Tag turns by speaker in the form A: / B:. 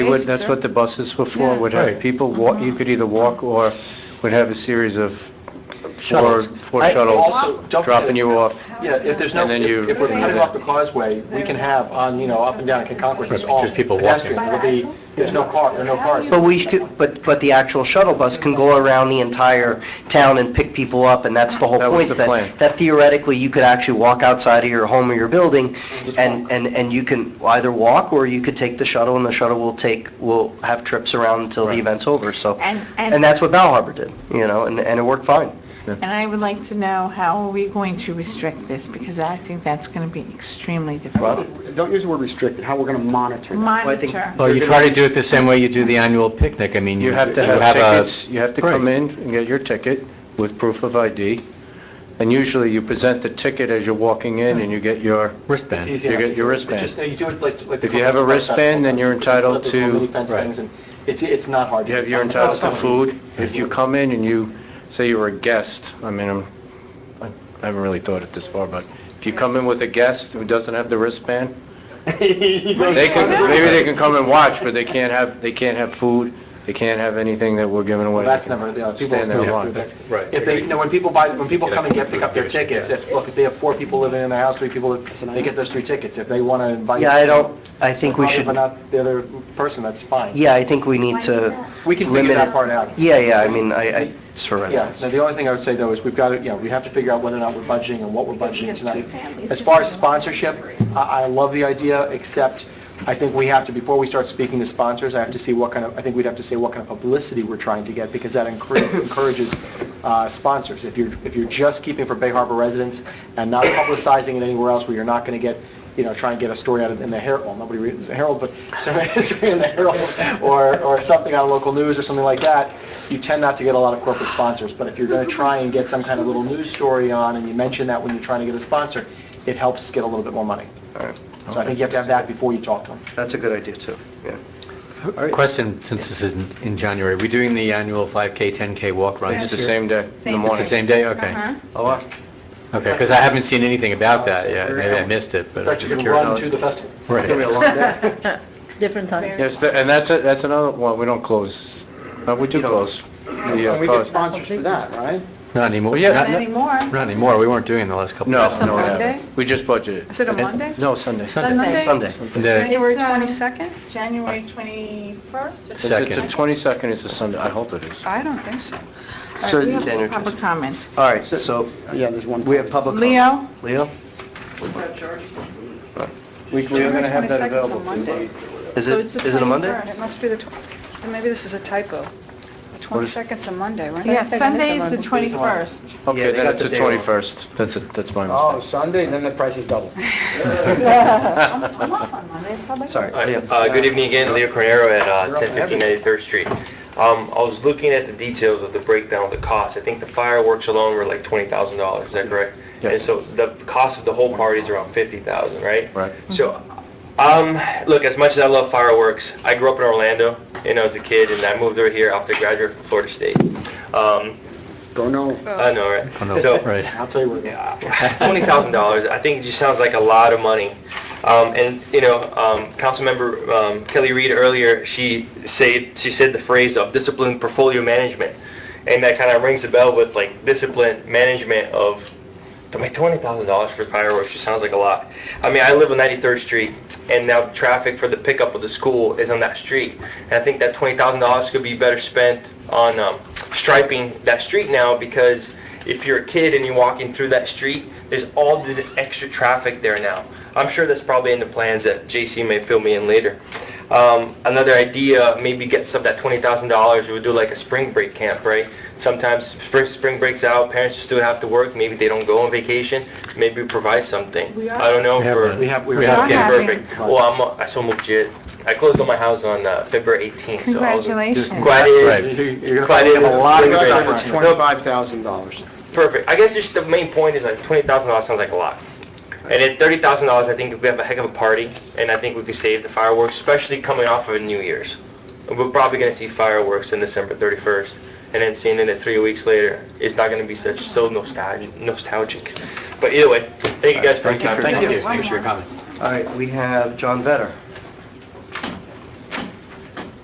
A: would,
B: basic
A: that's what the buses were for,
B: Yeah.
A: would have
C: Right.
A: people walk, you could either walk or would have a series of four,
C: Shuttles.
A: four
C: I- also,
A: shuttles
C: don't forget-
A: dropping you off.
C: Yeah, if there's no,
A: And then you-
C: if if we're cutting off the causeway, we can have on, you know, up and down in Concord, it's all
D: Just people
C: pedestrian. It'll be, there's no car, there are no cars.
E: But we could, but, but the actual shuttle bus can go around the entire town and pick people up, and that's the whole
A: That was
E: point.
A: the plan.
E: That theoretically, you could actually walk outside of your home or your building, and, and, and you can either walk, or you could take the shuttle, and the shuttle will take, will have trips around until the event's over, so.
B: And- and-
E: And that's what Bal Harbor did, you know, and, and it worked fine.
B: And I would like to know, how are we going to restrict this? Because I think that's going to be extremely difficult.
F: Don't use the word restricted, how we're going to monitor that.
E: think-
B: Monitor.
D: Well, Oh, you try to do it the same way you do the annual picnic. I mean,
A: You have to
D: you
A: have
D: a-
A: tickets, you have to come in and get your ticket with proof of ID. And usually you present the ticket as you're walking in and you get your,
D: Wristband.
C: It's easy
A: You get your
C: enough. It's just, You do it like, like. the
A: If you have a
C: Concord Fest
A: wristband,
C: Festival,
A: then you're
C: which is one of
A: entitled
C: those little
A: to-
C: mini fence
D: Right.
C: things, and It's, it's not hard.
A: you have, you're entitled to food. If you come in and you say you're a guest, I mean, I'm, I haven't really thought it this far, but if you come in with a guest who doesn't have the wristband, They can, maybe they can come and watch, but they can't have, they can't have food, they can't have anything that we're giving away.
C: Well, that's never, you know, people
A: Stand there
C: still
A: alone.
C: do that.
D: Right.
C: If they, you know, when people buy, when people come and get, pick up their tickets, if, look, if they have four people living in their house, three people, live- they get those three tickets. If they want to invite.
E: Yeah, I don't, I think we
C: Probably,
E: should,
C: But not the other person, that's fine.
E: yeah, I think we need to.
C: We can
E: limit
C: figure that
E: it.
C: part out.
E: Yeah, yeah, I mean, I, I, it's for
C: Yeah,
E: residents.
C: now the only thing I would say though is we've got to, you know, we have to figure out whether or not we're budgeting and what we're budgeting tonight. As far as sponsorship, I, I love the idea, except I think we have to, before we start speaking to sponsors, I have to see what kind of, I think we'd have to say what kind of publicity we're trying to get because that encour- encourages uh, sponsors. If you're, if you're just keeping for Bay Harbor residents and not publicizing it anywhere else where you're not going to get, you know, try and get a story out of, in the Herald, well, nobody reads the Herald, but some history in the Herald or, or something on local news or something like that, you tend not to get a lot of corporate sponsors. But if you're going to try and get some kind of little news story on and you mention that when you're trying to get a sponsor, it helps get a little bit more money.
E: All right.
C: So I think you have to have that before you talk to them.
E: That's a good idea, too, yeah.
D: Question, since this is in- in January, we're doing the annual 5K, 10K walk runs.
A: It's the
D: this-
A: same day, in the
D: It's the
A: morning.
D: same day? Okay.
B: Uh-huh.
E: Oh, wow.
D: Okay, because I haven't seen anything about that yet. Maybe I missed it,
C: In
D: but I'm
C: fact, you
D: just
C: can
D: curious.
C: run to the festival.
E: It's gonna be a
D: Right.
E: long day.
G: Different times.
A: Yes, tha- and that's, a- that's another, well, we don't close, no, we do close. The, uh,
F: And we get
A: cause-
F: sponsors for that, right?
D: Not anymore. Yeah,
B: Not
D: not- not-
B: anymore.
D: not anymore. We weren't doing the last couple
A: No,
D: of
A: no, we
H: Monday?
A: haven't. We just budgeted.
H: Is it a Monday?
A: No, Sunday.
H: Sunday?
E: Sunday.
D: The
H: January
B: It's, um,
H: 22nd?
B: January 21st?
A: Is it the
D: Second.
A: 22nd is a Sunday, I hope it is.
H: I don't think so.
B: All right,
E: So,
B: we have
E: January
B: Public
E: 22nd.
B: comment.
E: All right, so
F: Yeah, there's one.
E: we have public comment.
B: Leo?
E: Leo?
F: We- we-
H: January 22nd's a Monday.
E: Is
B: So
E: it,
B: it's the
E: is it a
H: 23rd,
E: Monday?
H: It must be the, tw- and maybe this is a typo. The
E: What is-
H: 22nd's a Monday, right?
B: Yeah, Sunday is the 21st.
E: Yeah, they
A: Okay, then
E: got
A: it's
E: the
A: the
E: day wrong.
A: 21st. That's, it. that's my
F: Oh,
A: mistake.
F: Sunday, then the price is double.
B: I'm I'm off on Monday, so I'll be-
E: Sorry,
I: Hi,
E: Leo.
I: uh, Good evening again, Leo Cornero at uh, 1015 93rd Street. Um, I was looking at the details of the breakdown of the cost. I think the fireworks alone were like $20,000, is that correct?
A: Yes.
I: And so the cost of the whole party is around 50,000, right?
A: Right.
I: So, um, look, as much as I love fireworks, I grew up in Orlando, you know, as a kid, and I moved over here after graduating from Florida State. Um,
F: Go no.
I: I know,
D: Oh,
I: right? So,
D: Right.
C: I'll tell you what.
I: Twenty thousand dollars, I think it just sounds like a lot of money. Um, and, you know, um, Councilmember, um, Kelly Reed earlier, she said, she said the phrase of disciplined portfolio management. And that kind of rings a bell with like disciplined management of, to make twenty thousand dollars for fireworks, just sounds like a lot. I mean, I live on Ninety-third Street and now traffic for the pickup of the school is on that street. And I think that twenty thousand dollars could be better spent on, um, striping that street now because if you're a kid and you're walking through that street, there's all this extra traffic there now. I'm sure that's probably in the plans that JC may fill me in later. Um, another idea, maybe get some of that twenty thousand dollars, we would do like a spring break camp, right? Sometimes spring, spring breaks out, parents still have to work, maybe they don't go on vacation, maybe we provide something.
B: We are-
I: I don't know
D: We have
I: for.
D: that.
C: We have, we
D: We
C: have.
B: have
I: Okay,
B: Yeah.
I: perfect. Well, I'm, uh, I so moved yet. I closed on my house on, uh, February eighteenth, so I was.
B: Congratulations.
I: Glad
D: Right.
I: it,
C: You're you're gonna
I: Glad
C: find
I: you
C: a
I: have a
C: lot of
I: spring break.
C: stuff.
F: It's $25,000.
I: Perfect. I guess just the main point is like twenty thousand dollars sounds like a lot. And then thirty thousand dollars, I think we have a heck of a party, and I think we could save the fireworks, especially coming off of New Year's. We're probably gonna see fireworks on December thirty-first, and then seeing it at three weeks later, it's not gonna be such so nostalgic. Nostalgic. But either way, thank you guys for your time.
D: Thank you for your comments.
E: All right, we have John Vetter.